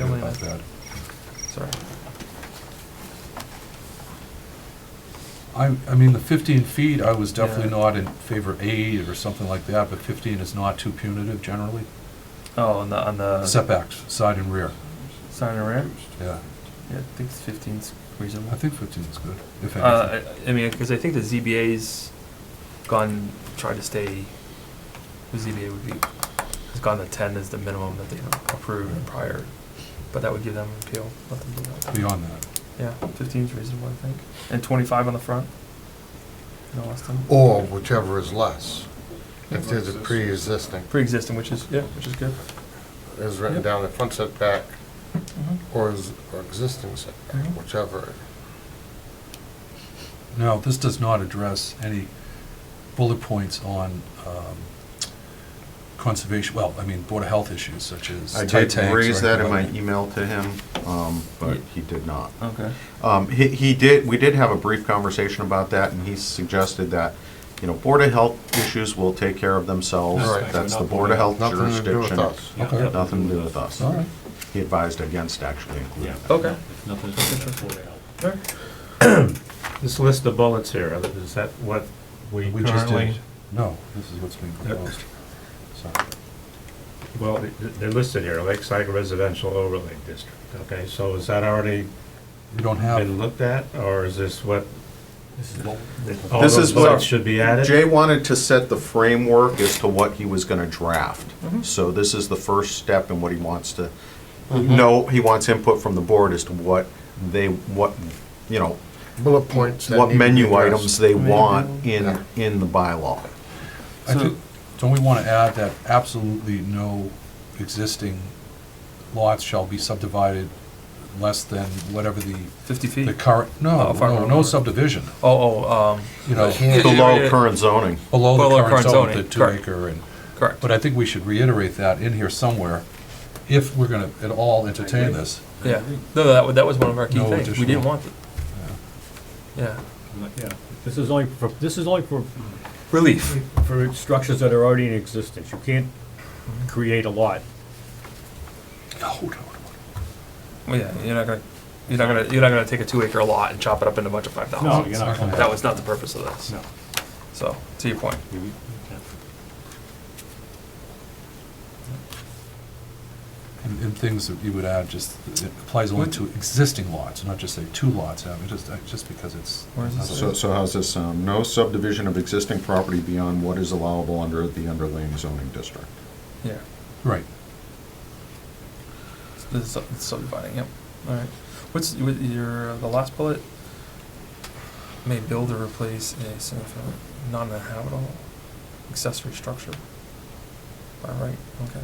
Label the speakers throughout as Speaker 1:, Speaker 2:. Speaker 1: about that.
Speaker 2: Sorry.
Speaker 1: I, I mean, the 15 feet, I was definitely
Speaker 2: Yeah.
Speaker 1: not in favor of eight or something like that, but 15 is not too punitive generally.
Speaker 2: Oh, on the, on the.
Speaker 1: Setbacks, side and rear,
Speaker 2: Side and rear?
Speaker 1: yeah.
Speaker 2: Yeah, I think it's fifteen's reasonable.
Speaker 1: I think 15 is good, if anything.
Speaker 2: Uh, I, I mean, because I think the ZBA's gone, tried to stay, the ZBA would be, has gone to ten as the minimum that they approved in prior, but that would give them an appeal, let them do that.
Speaker 1: Beyond that.
Speaker 2: Yeah, fifteen's reasonable, I think, and twenty-five on the front? No less than,
Speaker 3: Or whichever is less, if there's a pre-existing,
Speaker 2: pre-existing, which is, yeah, which is good.
Speaker 3: is written down the front setback
Speaker 1: Mm-hmm.
Speaker 3: or is, or existing setback,
Speaker 2: Mhm.
Speaker 3: whichever.
Speaker 1: Now, this does not address any bullet points on um, conservation, well, I mean, Board of Health issues such as.
Speaker 4: I
Speaker 1: tight
Speaker 4: did
Speaker 1: tanks or
Speaker 4: raise that in my
Speaker 1: anything like
Speaker 4: email to him, um, but he did not.
Speaker 2: Okay.
Speaker 4: Um, He he did, we did have a brief conversation about that, and he suggested that, you know, Board of Health issues will take care of themselves.
Speaker 3: Right.
Speaker 4: That's the Board of Health
Speaker 3: Nothing to do with
Speaker 4: jurisdiction.
Speaker 3: us.
Speaker 1: that. Okay,
Speaker 4: Nothing to do with us.
Speaker 1: all right.
Speaker 4: He advised against actually including that.
Speaker 2: Okay.
Speaker 5: Nothing's
Speaker 6: This list of bullets here, is that what we
Speaker 1: We just
Speaker 6: currently?
Speaker 1: did, no, this is what's being proposed. Sorry.
Speaker 6: Well, th- they're listed here, Lakeside Residential Overlay District, okay, so is that already
Speaker 1: We don't
Speaker 6: been
Speaker 1: have,
Speaker 6: looked at, or is this what? all
Speaker 4: This
Speaker 6: those
Speaker 4: is what-
Speaker 6: bullets Should be added?
Speaker 4: Jay wanted to set the framework as to what he was gonna draft. So this is the first step in what he wants to, no, he wants input from the board as to what they, what, you know,
Speaker 3: Bullet points. that need
Speaker 4: what
Speaker 3: to be
Speaker 4: menu
Speaker 3: addressed.
Speaker 4: items they
Speaker 2: Menu.
Speaker 4: want in,
Speaker 3: Yeah.
Speaker 4: in the bylaw.
Speaker 1: I think, don't we want to add that absolutely no existing lots shall be subdivided less than whatever the,
Speaker 2: Fifty feet?
Speaker 1: the current, no,
Speaker 2: Oh, far
Speaker 1: no,
Speaker 2: more.
Speaker 1: no subdivision,
Speaker 2: Oh, oh, um,
Speaker 1: you know,
Speaker 3: Can't-
Speaker 4: Below current zoning.
Speaker 1: below
Speaker 2: Below
Speaker 1: the current
Speaker 2: current
Speaker 1: zone, the
Speaker 2: zoning,
Speaker 1: two
Speaker 2: correct.
Speaker 1: acre and.
Speaker 2: um, correct,
Speaker 1: But I think we should reiterate that in here somewhere, if we're gonna at all entertain this.
Speaker 2: yeah, no, that, wa- that was one of our key
Speaker 1: No
Speaker 2: things, we
Speaker 1: additional-
Speaker 2: didn't want it. Yeah,
Speaker 5: Yeah, this is only for, this is only for,
Speaker 2: relief,
Speaker 5: for structures that are already in existence. You can't create a lot.
Speaker 1: No, no, no.
Speaker 2: Well, yeah, you're not gonna, you're not gonna, you're not gonna take a two acre lot and chop it up into a bunch of five
Speaker 5: No,
Speaker 2: dollars.
Speaker 5: you're not coming
Speaker 2: That was not the purpose of this,
Speaker 5: No.
Speaker 2: so, to your point,
Speaker 5: You- you
Speaker 1: And, and things that you would add, just, it applies only to existing lots, not just say two lots, I mean, just, uh, just because it's.
Speaker 2: Where is this?
Speaker 4: So, so how's this sound? No subdivision of existing property beyond what is allowable under the underlying zoning district.
Speaker 2: yeah,
Speaker 1: Right,
Speaker 2: this is sub- it's subdividing, yep, alright. What's y- with your, uh, the last bullet? May build or replace a single family, non-habitable accessory structure. All right, okay,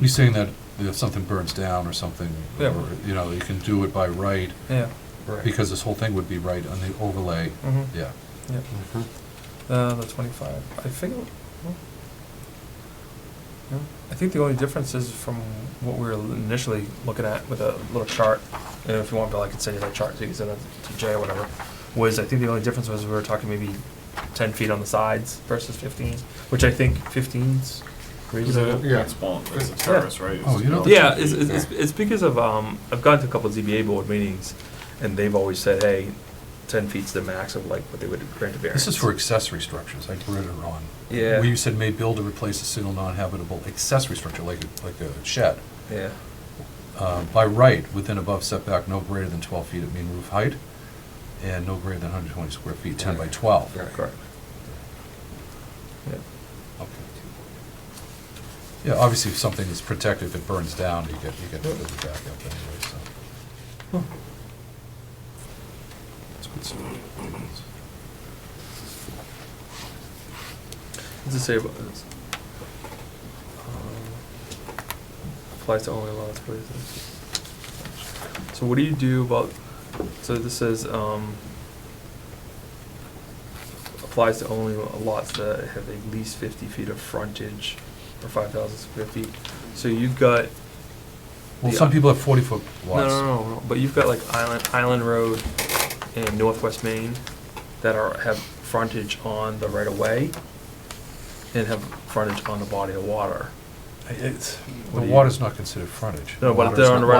Speaker 1: you're saying that if something burns down or something,
Speaker 2: Yeah.
Speaker 1: or, you know, you can do it by right,
Speaker 2: yeah,
Speaker 1: because this whole thing would be right on the overlay,
Speaker 2: mm-hmm.
Speaker 1: yeah.
Speaker 3: Mhm.
Speaker 2: Uh, the twenty-five, I think, well, yeah. I think the only difference is from what we were initially looking at with a little chart, and if you want, Bill, I can send you that chart, so you can send that to Jay or whatever, was, I think the only difference was we were talking maybe ten feet on the sides versus fifteen, which I think fifteen's reasonable.
Speaker 3: Yeah.
Speaker 5: small,
Speaker 3: it's a
Speaker 2: terrace,
Speaker 5: right?
Speaker 1: Oh, you know-
Speaker 2: Yeah, it's, it's, it's- it's because of, um, I've gone to a couple of ZBA board meetings, and they've always said, hey, ten feet's the max of like what they would grant a variance.
Speaker 1: This is for accessory structures, I read it wrong.
Speaker 2: Yeah.
Speaker 1: Where you said may build or replace a single non-habitable accessory structure, like, a- like a shed.
Speaker 2: Yeah.
Speaker 1: uh, by right, within above setback no greater than 12 feet at mean roof height, and no greater than 120 square feet, 10 by 12.
Speaker 3: Right.
Speaker 2: Correct. Yeah.
Speaker 1: Okay. Yeah, obviously, if something is protected, if it burns down, you get, you get the back up anyway, so. It's good stuff.
Speaker 2: What's it say about this? Um, Applies to only lots, but it's- So what do you do about, so this says, um, applies to only lots that have at least fifty feet of frontage or five thousand square feet. So you've got,
Speaker 1: Well, some
Speaker 2: Yeah.
Speaker 1: people have 40-foot
Speaker 2: no, no,
Speaker 1: lots.
Speaker 2: no, no, but you've got like Island, Island Road and Northwest Maine that are, have frontage on the right of way and have frontage on the body of water.
Speaker 1: It's- The
Speaker 2: What do you-
Speaker 1: water's not considered frontage.
Speaker 2: No, but
Speaker 4: Water's
Speaker 2: they're on the
Speaker 4: not-
Speaker 2: right